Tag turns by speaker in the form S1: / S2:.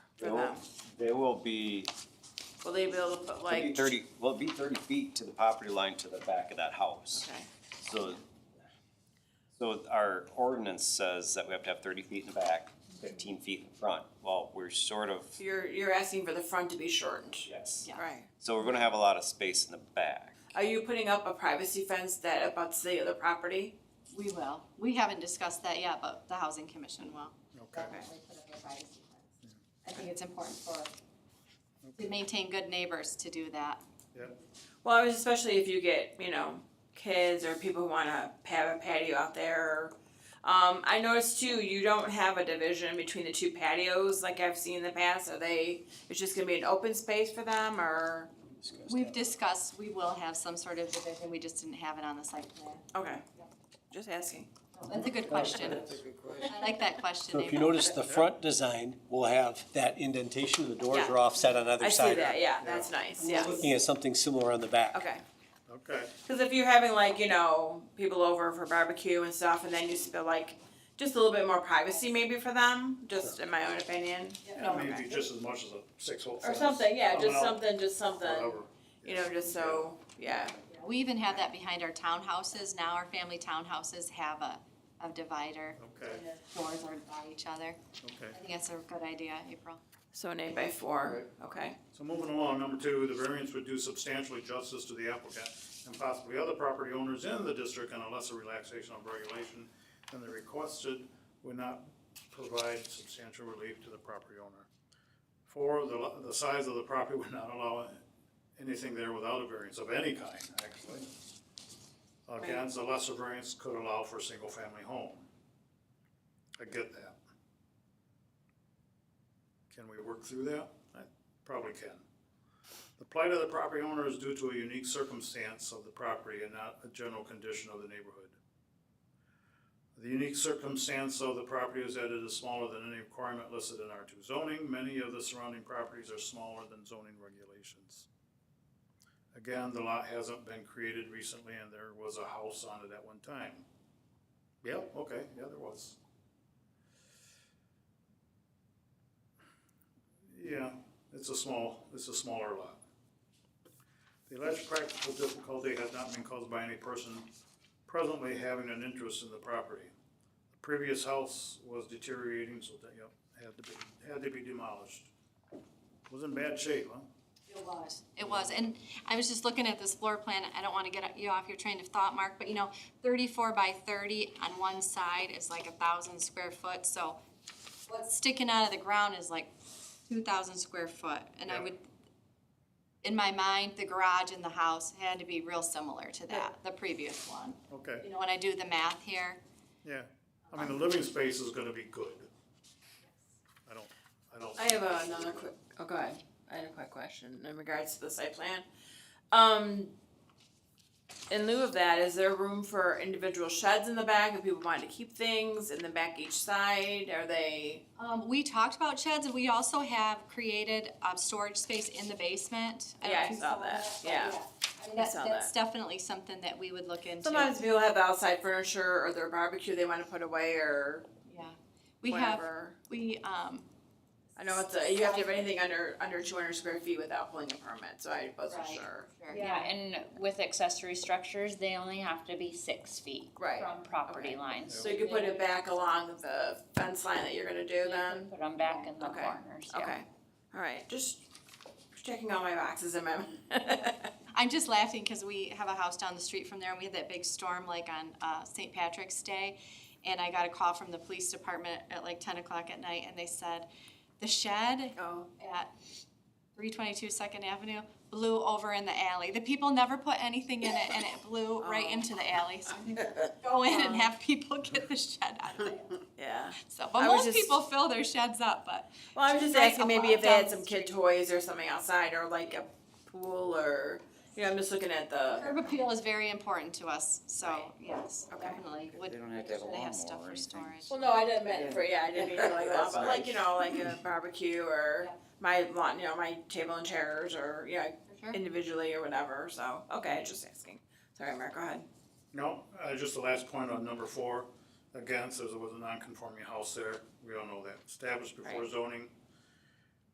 S1: They will be
S2: Will they be able to put
S1: thirty,
S2: like?
S1: thirty, well, it'd be thirty feet to the property line to the back of that house.
S2: Okay,
S1: So, so our ordinance says that we have to have thirty feet in the back, fifteen feet in front. Well, we're sort of,
S2: so you're, you're asking for the front to be shortened?
S1: yes.
S3: Yeah.
S2: Right.
S1: So we're gonna have a lot of space in the back.
S2: Are you putting up a privacy fence that abuts the other property?
S3: We will. We haven't discussed that yet, but the housing commission will.
S4: Okay,
S3: definitely put up a privacy fence. I think it's important for, to maintain good neighbors to do that.
S4: yep,
S2: Well, I was especially if you get, you know, kids or people who wanna have a patio out there. Um, I noticed too, you don't have a division between the two patios like I've seen in the past. Are they, it's just gonna be an open space for them or?
S3: We've discussed, we will have some sort of division, we just didn't have it on the site plan.
S2: Okay, just asking.
S4: Oh.
S3: That's a good question. I like that question,
S5: So if you
S3: Abel.
S5: notice, the front design will have that indentation, the doors
S2: Yeah.
S5: are offset on either
S2: I see
S5: side.
S2: that, yeah, that's nice, yeah.
S5: Looking at something similar on the back.
S2: Okay.
S4: okay.
S2: Because if you're having like you know people over for barbecue and stuff, and then you spill like just a little bit more privacy maybe for them, just in my own opinion,
S4: Yeah, Maybe just as much as a six hole
S2: or
S4: fence.
S2: something. Yeah, just
S4: Somehow,
S2: something, just something.
S4: Whatever.
S2: You know, just so yeah.
S3: We even have that behind our townhouses. Now our family townhouses have a, a divider.
S4: Okay,
S3: and the Doors are by each other.
S4: okay.
S3: I think that's a good idea, April.
S2: So an eight by four. Okay.
S4: So moving along, number two, the variance would do substantially justice to the applicant and possibly other property owners in the district on a lesser relaxation of regulation than the requested would not provide substantial relief to the property owner. Four, the, lo- the size of the property would not allow anything there without a variance of any kind, actually. Again, the lesser variance could allow for a single-family home. I get that. Can we work through that? I probably can. The plight of the property owner is due to a unique circumstance of the property and not a general condition of the neighborhood. The unique circumstance of the property is that it is smaller than any requirement listed in R two zoning. Many of the surrounding properties are smaller than zoning regulations. Again, the lot hasn't been created recently and there was a house on it at one time. Yep, okay, yeah, there was. Yeah, it's a small, it's a smaller lot. The alleged practical difficulty has not been caused by any person presently having an interest in the property. The Previous house was deteriorating, so that, yep, had to be, had to be demolished. Was in bad shape, huh?
S3: It was. It was, and I was just looking at this floor plan, I don't wanna get you off your train of thought, Mark, but you know, thirty-four by thirty on one side is like a thousand square foot, so what's sticking out of the ground is like two thousand square foot, and I
S4: Yeah.
S3: would, in my mind, the garage and the house had to be real similar to that, the previous one. You
S4: Okay,
S3: know, when I do the math here,
S4: yeah. I mean, the living space is gonna be good. I don't, I don't.
S2: I have another quick. Oh, go ahead. I had a quick question in regards to the site plan. Um, in lieu of that, is there room for individual sheds in the back if people wanted to keep things in the back each side? Are they?
S3: Um, we talked about sheds, and we also have created, um, storage space in the basement. don't know
S2: Yeah,
S3: if
S2: I
S3: you
S2: saw that.
S3: but
S2: Yeah.
S3: I mean,
S2: I
S3: that's,
S2: saw
S3: that's definitely something that we would look into.
S2: Sometimes people have the outside furniture or their barbecue they want to put away or
S3: Yeah, we have,
S2: whatever.
S3: we, um,
S2: I know it's a, you have to have anything under under 200 square feet without pulling a permit, so I wasn't
S3: Right.
S2: sure.
S3: sure, yeah,
S6: Yeah, and with accessory structures, they only have to be six feet
S2: Right.
S6: from property
S2: Okay.
S6: lines.
S2: So you could put it back along the fence line that you're gonna do then.
S6: Put them back in the
S2: Okay.
S6: corners,
S2: Okay.
S6: yeah.
S2: All right. Just checking all my boxes in my.
S3: I'm just laughing because we have a house down the street from there, and we had that big storm like on uh, St. Patrick's Day, and I got a call from the police department at like ten o'clock at night, and they said the shed
S2: oh.
S3: at three twenty-two Second Avenue blew over in the alley. The people never put anything in it, and it blew right
S2: Oh.
S3: into the alley. So we go in and have people get the shed out of there.
S2: Yeah.
S3: So,
S2: I
S3: but
S2: was
S3: most
S2: just-
S3: people fill their sheds up, but
S2: Well, I was just
S3: Like
S2: asking
S3: a
S2: maybe
S3: lot
S2: if they had
S3: down
S2: some
S3: the
S2: kid toys or something outside or like a pool or you know I'm just looking at the.
S3: Herb appeal is very important to us, so,
S2: Right.
S3: yes,
S2: Okay.
S3: definitely.
S7: They don't have to have a
S3: They have
S7: lawnmower
S3: stuff
S7: or
S3: for
S7: anything.
S3: storage.
S2: Well, no, I didn't mean for yeah, I didn't mean like that,
S7: That's
S2: but like you
S7: nice.
S2: know, like a barbecue or
S3: Yeah.
S2: my lawn, you know, my table and chairs or you know,
S3: Sure.
S2: individually or whatever. So okay, just asking. Sorry, Mark. Go ahead.
S4: No, uh, just the last point on number four, again, says it was a non-conforming house there, we all know that, established before
S2: Right.
S4: zoning,